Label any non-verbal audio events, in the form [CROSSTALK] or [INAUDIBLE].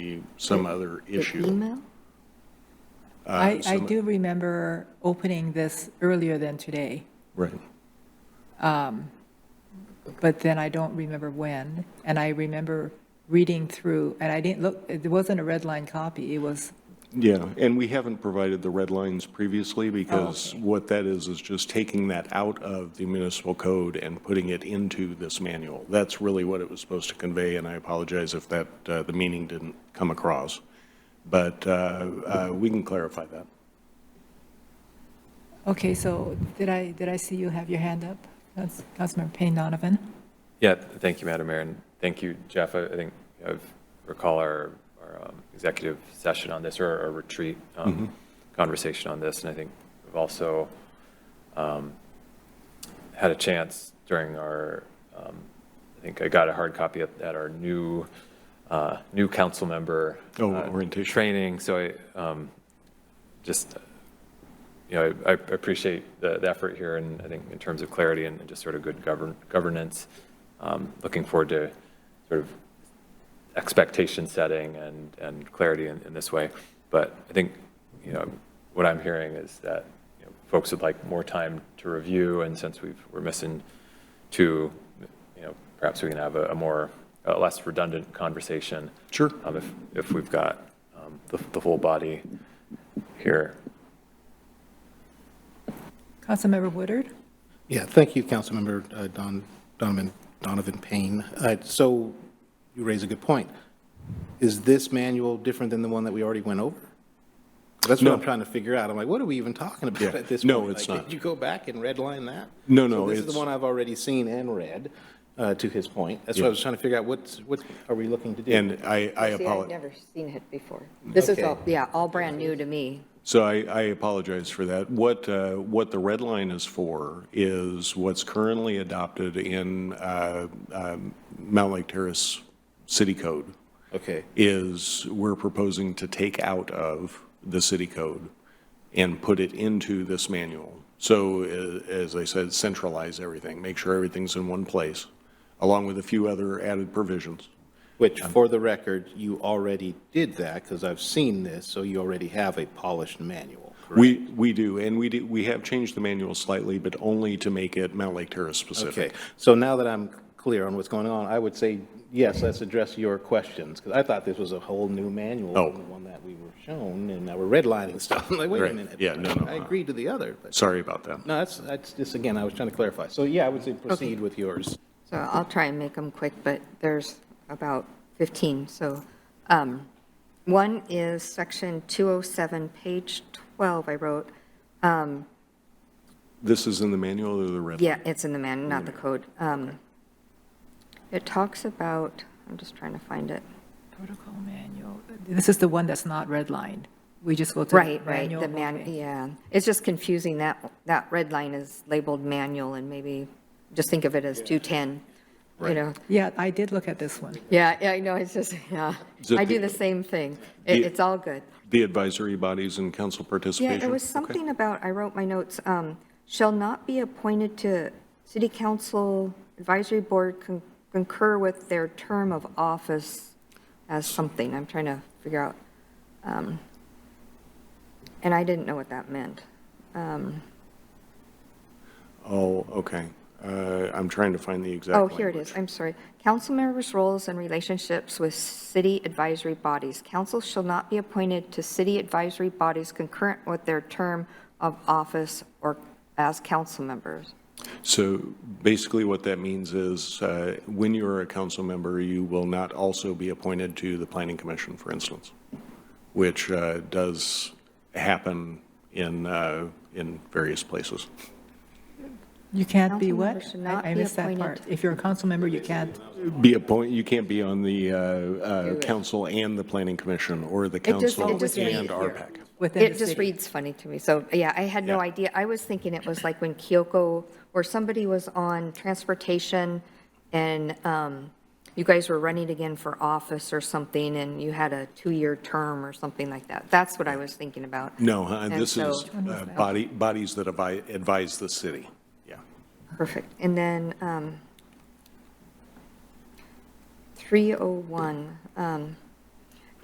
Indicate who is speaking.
Speaker 1: be some other
Speaker 2: The
Speaker 1: issue.
Speaker 2: email?
Speaker 1: uh,
Speaker 3: I, I
Speaker 1: some-
Speaker 3: do remember opening this earlier than today,
Speaker 1: Right.
Speaker 3: but then I don't remember when. And I remember reading through, and I didn't look, it wasn't a red line copy, it was,
Speaker 1: Yeah, and we haven't provided the red lines previously
Speaker 3: Oh,
Speaker 1: because what that is, is just taking that out of the municipal code and putting it into this manual. That's really what it was supposed to convey, and I apologize if that, uh, the meaning didn't come across. But uh, uh, we can clarify that.
Speaker 3: okay, so did I, did I see you have your hand up? That's Councilmember Payne Donovan.
Speaker 4: Yeah, th- thank you, Madam Mayor, and thank you, Jeff. I I think I recall our, our um, executive session on this, or our retreat
Speaker 1: Mm-hmm.
Speaker 4: um, conversation on this, and I think we've also um, had a chance during our, um, I think I got a hard copy at, at our new, uh, new council member.
Speaker 1: Oh,
Speaker 4: uh,
Speaker 1: orientation.
Speaker 4: Training, so I um, just you know, I I appreciate the the effort here, and I think in terms of clarity and just sort of good govern- governance, um, looking forward to sort of expectation setting and, and clarity in, in this way. But I think, you know, what I'm hearing is that you know, folks would like more time to review, and since we've, we're missing two, you know, perhaps we can have a, a more, a less redundant conversation.
Speaker 1: Sure.
Speaker 4: Um, if, if we've got um, the, the full body here.
Speaker 3: Councilmember Woodard?
Speaker 5: Yeah, thank you, Councilmember uh, Don Donovan Donovan Payne. Uh, So you raise a good point. Is this manual different than the one that we already went over? That's what
Speaker 1: No.
Speaker 5: I'm trying to figure out. I'm like, what are we even talking about
Speaker 1: Yeah.
Speaker 5: at this point?
Speaker 1: No, it's
Speaker 5: Like,
Speaker 1: not.
Speaker 5: Did you go back and redline that?
Speaker 1: No,
Speaker 5: So
Speaker 1: no,
Speaker 5: This is
Speaker 1: it's-
Speaker 5: the one I've already seen and read, uh, to his point. That's
Speaker 1: Yeah.
Speaker 5: why I was trying to figure out what's, what are we looking to do?
Speaker 1: And I, I
Speaker 2: See, I've
Speaker 1: apologize.
Speaker 2: never seen it before. This is
Speaker 5: Okay.
Speaker 2: all, yeah, all brand new to me.
Speaker 1: So I, I apologize for that. What, uh, what the red line is for is what's currently adopted in uh, um, Mount Lake Terrace City Code
Speaker 5: Okay.
Speaker 1: is we're proposing to take out of the city code and put it into this manual. So a- as I said, centralize everything, make sure everything's in one place, along with a few other added provisions.
Speaker 5: Which,
Speaker 1: Um,
Speaker 5: for the record, you already did that, because I've seen this, so you already have a polished manual, correct?
Speaker 1: We, we do, and we do, we have changed the manual slightly, but only to make it Mount Lake Terrace specific.
Speaker 5: Okay, so now that I'm clear on what's going on, I would say, yes, let's address your questions, because I thought this was a whole new manual
Speaker 1: Oh.
Speaker 5: from the one that we were shown, and now we're redlining stuff. I'm like, wait
Speaker 1: Right.
Speaker 5: a minute.
Speaker 1: Yeah, no, no,
Speaker 5: I
Speaker 1: uh,
Speaker 5: agreed to the other, but,
Speaker 1: Sorry about that.
Speaker 5: no, that's, that's just, again, I was trying to clarify. So, yeah, I would say proceed with yours.
Speaker 2: So I'll try and make them quick, but there's about 15, so. um, One is section 207, page 12, I wrote. Um,
Speaker 1: This is in the manual or the red?
Speaker 2: Yeah, it's in the man, not the code. Um, It talks about, I'm just trying to find it.
Speaker 3: Protocol manual. This is the one that's not redlined. We just go to the
Speaker 2: Right, right,
Speaker 3: manual.
Speaker 2: the man,
Speaker 3: Okay.
Speaker 2: yeah. It's just confusing, that, that red line is labeled manual, and maybe, just think of it as 210, you know?
Speaker 3: Yeah, I did look at this one.
Speaker 2: Yeah, yeah, I know, it's just, [LAUGHS] yeah,
Speaker 1: Is it
Speaker 2: I do
Speaker 1: the-
Speaker 2: the same thing. It,
Speaker 1: the-
Speaker 2: it's all good.
Speaker 1: The advisory bodies and council
Speaker 2: Yeah,
Speaker 1: participation?
Speaker 2: it was
Speaker 1: Okay.
Speaker 2: something about, I wrote my notes, um, shall not be appointed to city council advisory board con- concur with their term of office as something, I'm trying to figure out. um, And I didn't know what that meant. Um,
Speaker 1: Oh, okay. Uh, I'm trying to find the exact
Speaker 2: Oh, here it
Speaker 1: language.
Speaker 2: is, I'm sorry. Council members' roles and relationships with city advisory bodies. Council shall not be appointed to city advisory bodies concurrent with their term of office or as council members.
Speaker 1: So basically what that means is, uh, when you're a council member, you will not also be appointed to the planning commission, for instance, which uh, does happen in, uh, in various places.
Speaker 3: You can't be
Speaker 2: Council member
Speaker 3: what?
Speaker 2: should not
Speaker 3: I I
Speaker 2: be
Speaker 3: missed that
Speaker 2: appointed.
Speaker 3: part. If you're a council member, you can't.
Speaker 1: Be appoint, you can't be on the uh, uh,
Speaker 2: Do it.
Speaker 1: council and the planning commission, or the
Speaker 2: It just-
Speaker 1: council
Speaker 2: it just
Speaker 1: and
Speaker 2: reads-
Speaker 1: RPAC.
Speaker 3: within the
Speaker 2: It just
Speaker 3: city.
Speaker 2: reads funny to me, so, yeah, I had no
Speaker 1: Yeah.
Speaker 2: idea. I was thinking it was like when Kyoko, or somebody was on transportation, and um, you guys were running again for office or something, and you had a two-year term or something like that. That's what I was thinking about.
Speaker 1: No, uh,
Speaker 2: And
Speaker 1: this
Speaker 2: so-
Speaker 1: is uh, body, bodies that advi- advise the city. Yeah.
Speaker 2: Perfect. And then oh um, 301, um,